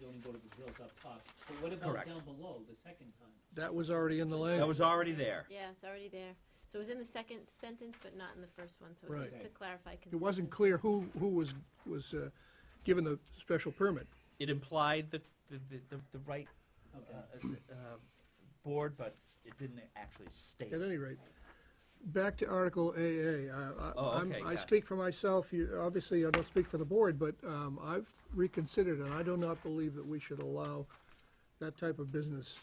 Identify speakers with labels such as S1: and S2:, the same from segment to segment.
S1: Board of Appeals up top, but what about
S2: Correct.
S1: down below, the second time?
S3: That was already in the
S2: That
S3: language.
S2: was already there.
S4: Yeah, it's already there. So it was in the second sentence, but not in the first one, so
S3: Right.
S4: it's just to clarify.
S3: It wasn't
S4: consistency.
S3: clear who, who was, was uh, given the special permit.
S2: It implied the, the, the, the- the right, uh,
S1: Okay,
S2: uh, board, but it didn't actually state.
S3: At any rate, back to Article AA. I- I-
S2: Oh,
S3: I'm-
S2: okay,
S3: I
S2: yeah.
S3: speak for myself, you, obviously I don't speak for the board, but um, I've reconsidered and I do not believe that we should allow that type of business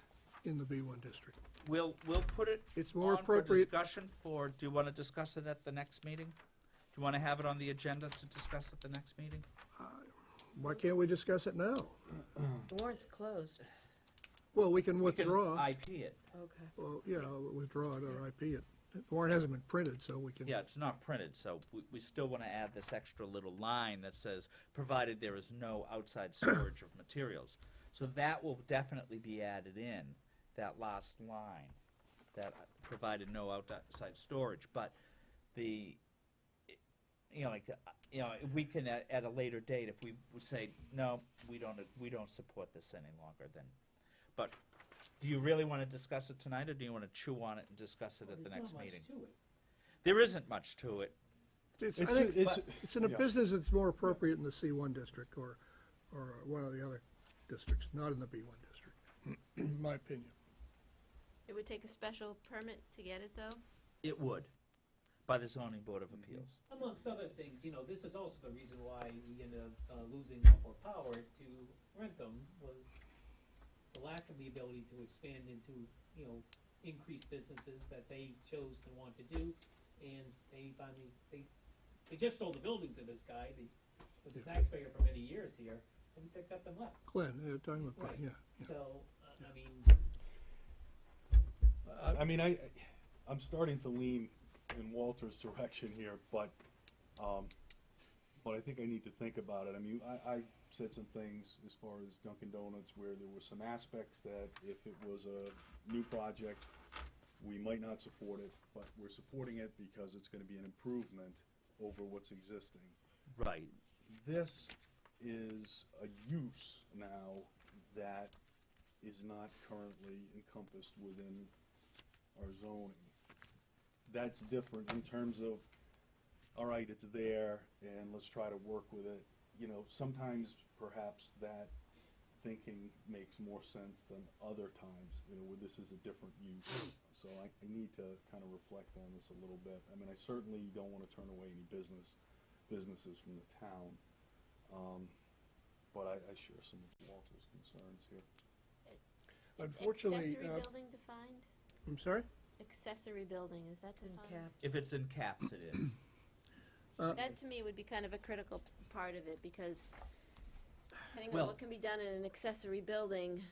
S3: in the B1 district.
S2: We'll, we'll put it
S3: It's more
S2: on for
S3: appropriate,
S2: discussion for, do you want to discuss it at the next meeting? Do you want to have it on the agenda to discuss at the next meeting?
S3: why can't we discuss it now?
S5: The warrant's closed.
S3: Well, we can
S2: We can
S3: withdraw,
S2: IP it.
S5: Okay.
S3: well, yeah, withdraw it or IP it. The warrant hasn't been printed, so we can.
S2: Yeah, it's not printed, so we, we still want to add this extra little line that says, provided there is no outside storage of materials. So that will definitely be added in, that last line, that provided no outside storage. But the, you know, like, uh, you know, we can at, at a later date, if we would say, no, we don't, we don't support this any longer, then. But do you really want to discuss it tonight, or do you want to chew on it and discuss it at the
S1: There's not
S2: next
S1: much
S2: meeting?
S1: to it.
S2: There isn't much to it.
S3: It's, I
S6: It's,
S3: think,
S6: it's,
S3: It's in a
S6: Yeah.
S3: business that's more appropriate in the C1 district or, or one of the other districts, not in the B1 district, in my opinion.
S4: It would take a special permit to get it, though?
S2: It would, by the zoning board of appeals.
S1: Amongst other things, you know, this is also the reason why we ended up uh, losing Upper Power to Rentham was the lack of the ability to expand into, you know, increased businesses that they chose to want to do. And they finally, they, they just sold the building to this guy, the, was a taxpayer for many years here, and he picked up and left.
S3: Glenn, uh, talking about Glenn,
S1: Right.
S3: yeah.
S1: So, uh, I mean,
S6: I- I mean, I, I'm starting to lean in Walter's direction here, but, um, but I think I need to think about it. I mean, I, I said some things as far as Dunkin' Donuts where there were some aspects that if it was a new project, we might not support it, but we're supporting it because it's gonna be an improvement over what's existing.
S2: Right.
S6: this is a use now that is not currently encompassed within our zoning. That's different in terms of, all right, it's there, and let's try to work with it. You know, sometimes perhaps that thinking makes more sense than other times, you know, where this is a different use. So I, I need to kind of reflect on this a little bit. I mean, I certainly don't want to turn away any business, businesses from the town. Um, but I, I share some of Walter's concerns here.
S4: Is
S3: Unfortunately, uh,
S4: Accessory building defined?
S3: I'm sorry?
S4: Accessory building, is that
S5: In
S4: defined?
S5: caps.
S2: If it's in caps, it is.
S3: Uh,
S4: That, to me, would be kind of a critical part of it, because depending on
S2: Well-
S4: what can be done in an accessory building,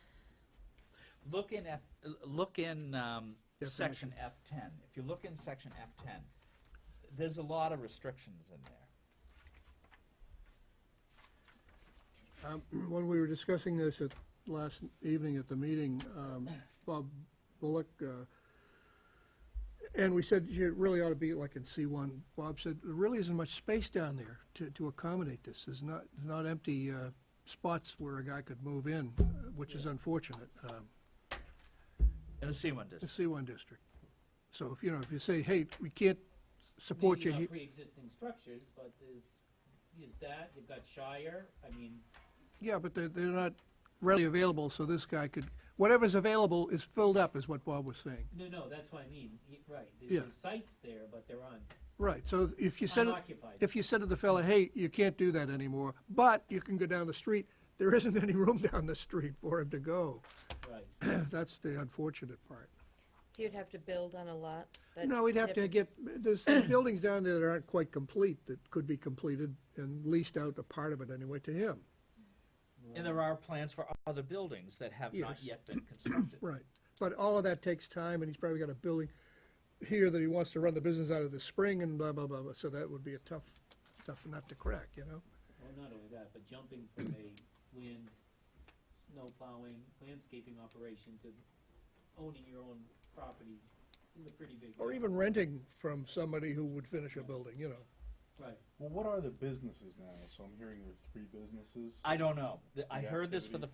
S2: Look in F, look in, um, section F ten. If you look in section F ten, there's a lot of restrictions in there.
S3: Um, When we were discussing this at, last evening at the meeting, um, Bob Bullock, uh, and we said you really ought to be like in C1. Bob said, there really isn't much space down there to, to accommodate this. There's not, there's not empty uh, spots where a guy could move in, uh, which is unfortunate. Um,
S2: In the C one
S3: the
S2: district.
S3: C1 district. So if, you know, if you say, hey, we can't support you,
S1: maybe not
S3: he-
S1: pre-existing structures, but there's, is that, you've got Shire, I mean,
S3: yeah, but they're, they're not readily available, so this guy could, whatever's available is filled up, is what Bob was saying.
S1: No, no, that's what I mean, Y- right, there-
S3: Yeah.
S1: there's sites there, but they're on,
S3: Right, so if you said, it-
S1: unoccupied.
S3: if you said to the fella, hey, you can't do that anymore, but you can go down the street, there isn't any room down the street for him to go.
S1: Right,
S3: That's the unfortunate part.
S5: You'd have to build on a lot. that-
S3: No, we'd have to get, there's buildings down there that aren't quite complete, that could be completed and leased out a part of it anyway to him.
S2: And there are plans for other buildings that have not
S3: Yes.
S2: yet been constructed.
S3: Right, but all of that takes time, and he's probably got a building here that he wants to run the business out of this spring and blah, blah, blah, blah, so that would be a tough, tough nut to crack, you know?
S1: well, not only that, but jumping from a wind, snow plowing, landscaping operation to owning your own property is a pretty big.
S3: Or
S1: jump.
S3: even renting from somebody who would finish a building, you know?
S1: Right,
S6: Well, what are the businesses now? So I'm hearing there are three businesses.
S2: I don't know. Th- I
S6: The
S2: heard this for the